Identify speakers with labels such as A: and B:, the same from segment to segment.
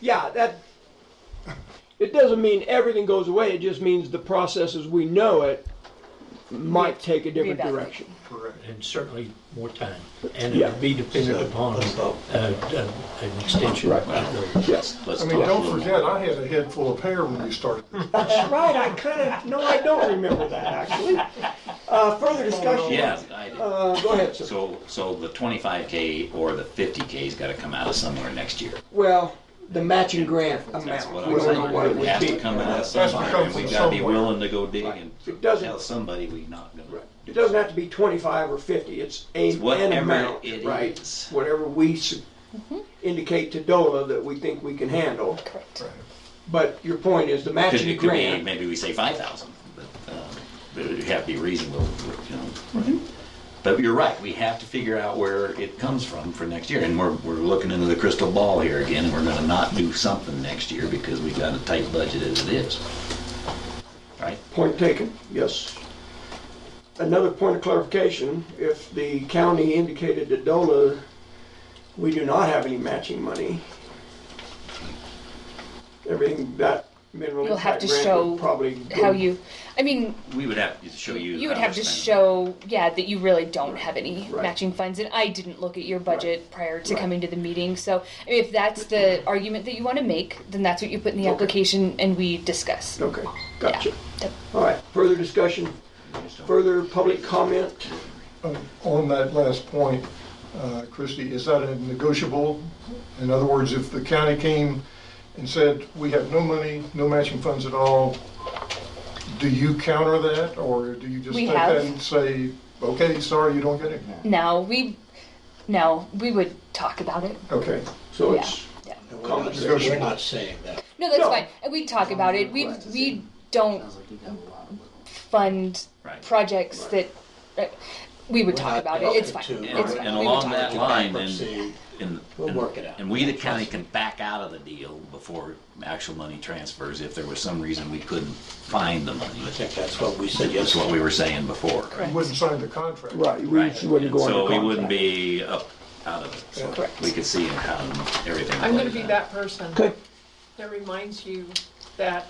A: yeah, that, it doesn't mean everything goes away, it just means the process as we know it might take a different
B: Reevaluate.
A: direction.
C: Correct.
D: and certainly more time. And it
A: Yeah.
D: would be dependent
E: So,
D: upon
E: let's
D: uh,
E: stop.
D: uh, an extension.
A: Right.
D: of the-
A: Yes.
E: Let's
C: I
E: talk
C: mean,
E: a
C: don't
E: little
C: forget, I had a head full of hair when we started.
A: That's right, I kind of, no, I don't remember that, actually. Uh, further discussion?
E: Yeah, I do.
A: Uh, go ahead, sir.
E: So, so the twenty-five K or the fifty K's gotta come out of somewhere next year.
A: Well, the matching grant amount,
E: That's what
A: we
E: I'm
A: don't know what it
E: saying. It has to
A: would be.
E: come out of
C: That's
E: somewhere
C: because
E: and we
C: it's
E: gotta be
C: somewhere.
E: willing to go dig and
A: It doesn't-
E: tell somebody we not gonna.
A: It doesn't have to be twenty-five or fifty, it's a,
E: It's whatever
A: an amount,
E: it
A: right?
E: is.
A: Whatever we s- indicate to DOLA that we think we can handle.
B: Correct.
A: But your point is the
E: Could,
A: matching
E: it could be,
A: grant,
E: maybe we say five thousand, but, uh, but it would have to be reasonable, you
B: Mm-hmm.
E: know. But you're right, we have to figure out where it comes from for next year, and we're, we're looking into the crystal ball here again, and we're gonna not do something next year because we got a tight budget as it is. Right?
A: point taken, yes. Another point of clarification, if the county indicated to DOLA, we do not have any matching money, everything that minimum
B: You'll have
A: impact
B: to
A: grant
B: show
A: would probably. go-
B: how you, I mean,
E: We would have to show you.
B: you would
E: how
B: have
E: we're
B: to
E: spending.
B: show, yeah, that you really don't have any
A: Right.
B: matching funds, and I didn't look at your budget prior to
A: Right.
B: coming to the meeting, so I mean, if that's the argument that you want to make, then that's what you put in the
A: Okay.
B: application and we discuss.
A: Okay,
B: Yeah.
A: gotcha.
B: Yep.
A: All right, further discussion, further public comment?
C: Uh, On that last point, uh, Christie, is that a negotiable? In other words, if the county came and said, we have no money, no matching funds at all, do you counter that, or do you just
B: We
C: take that
B: have.
C: and say, okay, sorry, you don't get it?
B: No, we, no, we would talk about it.
C: Okay,
A: So
B: Yeah.
A: it's
B: Yeah.
A: conversation.
F: We're not saying that.
B: No, that's
A: No.
B: fine. And we talk about it. We
A: Right.
B: we don't fund
E: Right.
B: projects that uh, we would
F: We're
B: talk
F: not
B: about it. It's fine.
F: open to-
B: It's fine.
E: And
B: We would
E: along
B: talk
E: that
B: about it.
E: line, then,
F: Bankruptcy.
E: and.
F: We'll
E: and-
F: work it out.
E: And we, the county, can back out of the deal before actual money transfers if there was some reason we couldn't find the money.
F: I think that's what we said
E: That's what
F: yesterday.
E: we were saying before.
C: you wouldn't sign the contract.
A: Right, we
E: Right.
A: wouldn't go
E: So
A: under
E: we wouldn't
A: contract.
E: be up out of it. So
B: Correct.
E: We could see how everything.
G: I'm gonna
E: plays
G: be
E: out.
G: that person
A: Okay.
G: that reminds you that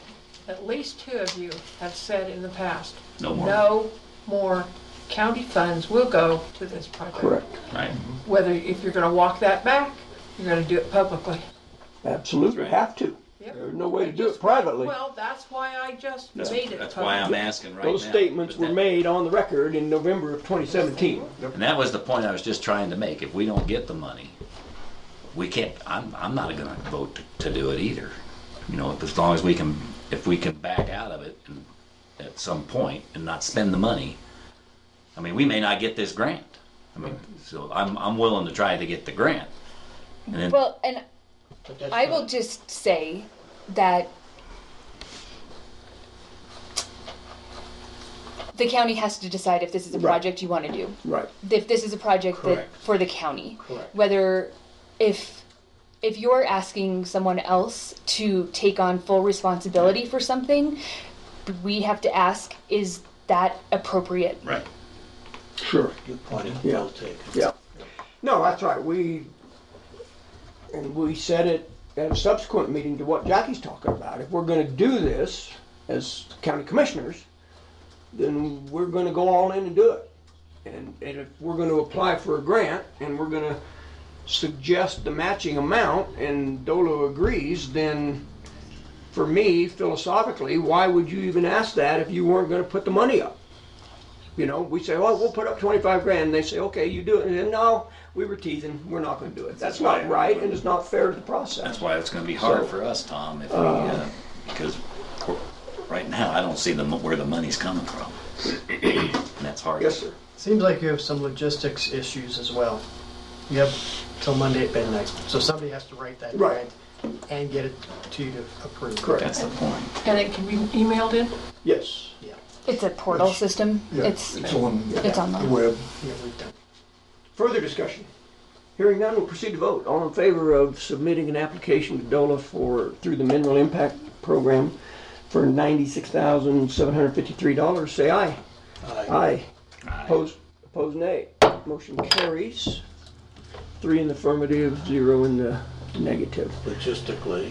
G: at least two of you have said in the past,
E: No more.
G: no more county funds will go to this project.
A: Correct,
E: Right.
G: Whether, if you're gonna walk that back, you're gonna do it publicly.
A: absolutely, have to.
G: Yep.
A: There's no way to do it privately.
G: Well, that's why I just
E: That's,
G: made it
E: that's why I'm
G: public.
E: asking right now.
A: Those statements
E: But
A: were
E: that-
A: made on the record in November of 2017.
E: And that was the point I was just trying to make. If we don't get the money, we can't, I'm, I'm not gonna vote to, to do it either. You know, if- as long as we can, if we can back out of it and at some point and not spend the money. I mean, we may not get this grant. I mean, so I'm, I'm willing to try to get the grant. And then,
B: Well, and
F: But that's
B: I
F: not-
B: will just say that the county has to decide if this is a
A: Right.
B: project you want to do.
A: Right.
B: if this is a project that,
F: Correct.
B: for the county.
F: Correct.
B: Whether, if, if you're asking someone else to take on full responsibility for something, we have to ask, is that appropriate?
E: right.
A: Sure.
F: Good point, and
A: Yeah.
F: well taken.
A: Yeah. No, that's right, we, and we said it at a subsequent meeting to what Jackie's talking about. If we're gonna do this as county commissioners, then we're gonna go all in and do it. And, and if we're gonna apply for a grant and we're gonna suggest the matching amount and Dolo agrees, then for me philosophically, why would you even ask that if you weren't gonna put the money up? You know, we say, oh, we'll put up twenty-five grand, and they say, okay, you do it, and then, no, we were teasing, we're not gonna do it. That's not right, and it's not fair to the
E: That's
A: process.
E: why it's gonna be hard
A: So-
E: for us, Tom, if we, uh, because we're- right now, I don't see the, mo- where the money's coming from. And that's hard.
A: Yes, sir.
H: Seems like you have some logistics issues as well. You have till Monday at midnight, so somebody has to write that
A: Right.
H: grant and get it to you to approve.
A: Correct.
E: That's the point.
G: And it can be emailed in?
A: Yes.
H: Yeah,
B: It's a portal system.
C: Yeah,
B: It's,
C: It's on
B: it's
C: the
B: online.
C: web.
H: yeah, we've done.
A: Further discussion? Hearing none, we'll proceed to vote. All in favor of submitting an application to DOLA for, through the Mineral Impact Program for ninety-six thousand, seven hundred fifty-three dollars, say aye.
F: Aye.
A: Aye. Opposed, opposed nay. Motion carries. Three in the affirmative, zero in the negative.
F: Logistically,